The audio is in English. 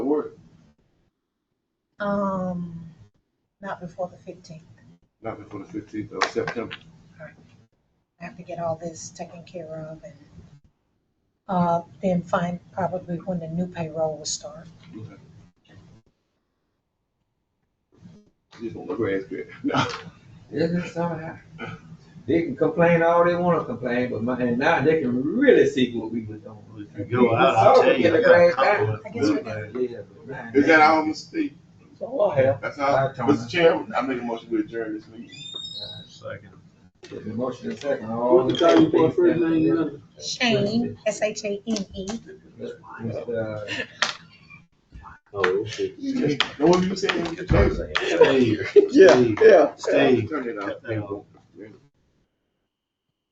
Um, not before the fifteenth. Not before the fifteenth of September. I have to get all this taken care of and, uh, then find probably when the new payroll will start. Okay. Just on the grass bit. No. This is something. They can complain all they wanna complain, but my, and now they can really see what we was doing. If you go out, I'll tell you, I got a couple of I guess we're good Yeah, but man, Oh, Is that all, Mr. Steve? So what happened? That's all. Bye, Tony. Mr. Chairman, I make a motion to adjourn this meeting. things. Second. The motion is second. all What in the time favor, for please first stand up. name, you know? Shane, S H A N E. Mr. uh, Oh, shit. Now, what were you saying? Stay here. Yeah, yeah. Stay. Turn it off. Cut that off.